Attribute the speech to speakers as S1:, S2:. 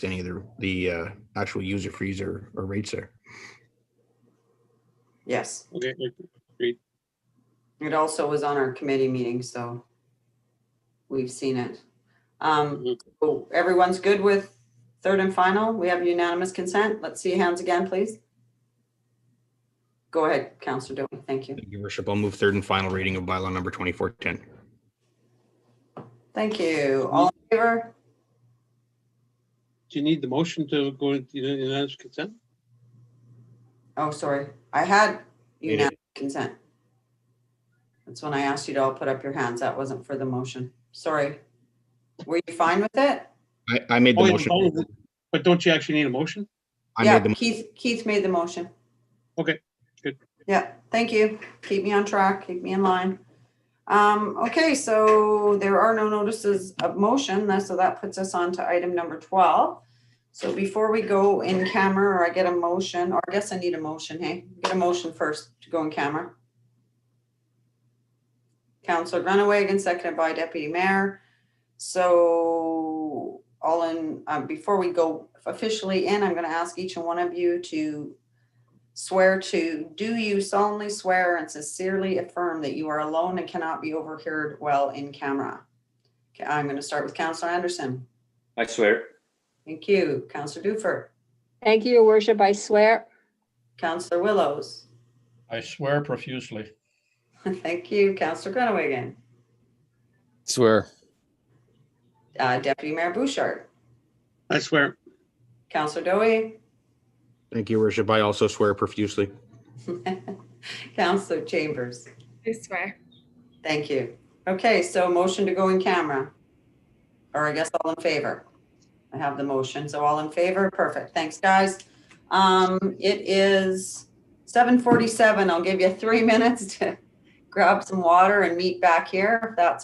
S1: to any of the, the uh, actual user fees or, or rates there.
S2: Yes,
S3: Okay,
S2: it also was on our committee meeting, so we've seen it. Um,
S3: Mhm.
S2: so everyone's good with third and final? We have unanimous consent? Let's see hands again, please. Go ahead, Counselor Dwight, thank you.
S1: Thank you, Your worship. I'll move third and final reading of bylaw number 2410.
S2: Thank you. All in favor?
S3: do you need the motion to go into unanimous consent?
S2: Oh, sorry, I had
S1: You did.
S2: unanimous consent. That's when I asked you to all put up your hands. That wasn't for the motion. Sorry. Were you fine with it?
S1: I, I made the
S3: Oh, you-
S1: motion.
S3: oh, But don't you actually need a motion?
S1: I
S2: Yeah,
S1: made the, mo-
S2: Keith, Keith made the motion.
S3: Okay, good.
S2: Yeah, thank you. Keep me on track, keep me in line. Um, okay, so there are no notices of motion, that- so that puts us on to item number twelve. So before we go in camera, or I get a motion, or I guess I need a motion, hey, get a motion first to go in camera. Counselor Grunawagon, seconded by Deputy Mayor. So all in, uh, before we go officially in, I'm going to ask each and one of you to swear to, do you solemnly swear and sincerely affirm that you are alone and cannot be overheard while in camera? Okay, I'm going to start with Counselor Anderson.
S4: I swear.
S2: Thank you. Counselor Dufer,
S5: Thank you, your worship. I swear.
S2: Counselor Willows.
S6: I swear profusely.
S2: Thank you. Counselor Grunewagen,
S7: Swear.
S2: uh, Deputy Mayor Bouchard,
S3: I swear.
S2: Counselor Dowie,
S1: thank you, your worship. I also swear profusely.
S2: Counselor Chambers.
S8: I swear.
S2: Thank you. Okay, so motion to go in camera. Or I guess all in favor. I have the motion, so all in favor, perfect. Thanks, guys. Um, it is seven forty-seven. I'll give you three minutes to grab some water and meet back here if that's